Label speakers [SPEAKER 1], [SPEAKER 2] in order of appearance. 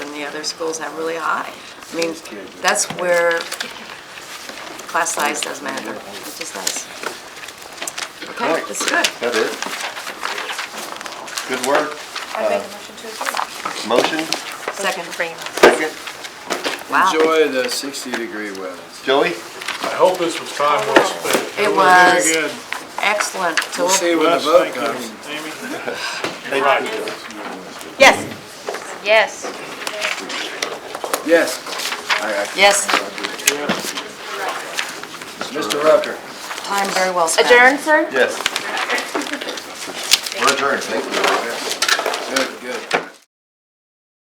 [SPEAKER 1] other schools have really high. I mean, that's where class size does matter. It just does. Okay,
[SPEAKER 2] Right.
[SPEAKER 1] that's good.
[SPEAKER 2] That is. Good work.
[SPEAKER 3] I make a motion to approve.
[SPEAKER 2] Motion,
[SPEAKER 1] Second.
[SPEAKER 2] second.
[SPEAKER 1] Wow.
[SPEAKER 4] Enjoy the 60-degree weather.
[SPEAKER 2] Joey?
[SPEAKER 5] I hope this was time well spent.
[SPEAKER 1] It
[SPEAKER 5] Very
[SPEAKER 1] was.
[SPEAKER 5] good.
[SPEAKER 1] Excellent
[SPEAKER 4] We'll
[SPEAKER 1] tool.
[SPEAKER 4] see when the
[SPEAKER 5] Yes,
[SPEAKER 4] vote
[SPEAKER 5] thank
[SPEAKER 4] comes.
[SPEAKER 5] you, Amy.
[SPEAKER 2] Thank
[SPEAKER 5] Right.
[SPEAKER 2] you, Joey.
[SPEAKER 3] Yes. Yes.
[SPEAKER 4] Yes,
[SPEAKER 1] Yes,
[SPEAKER 4] Mr. Rupter.
[SPEAKER 1] time very well spent.
[SPEAKER 3] Adjourn, sir?
[SPEAKER 2] Yes. We're adjourned, thank you.
[SPEAKER 4] Good, good.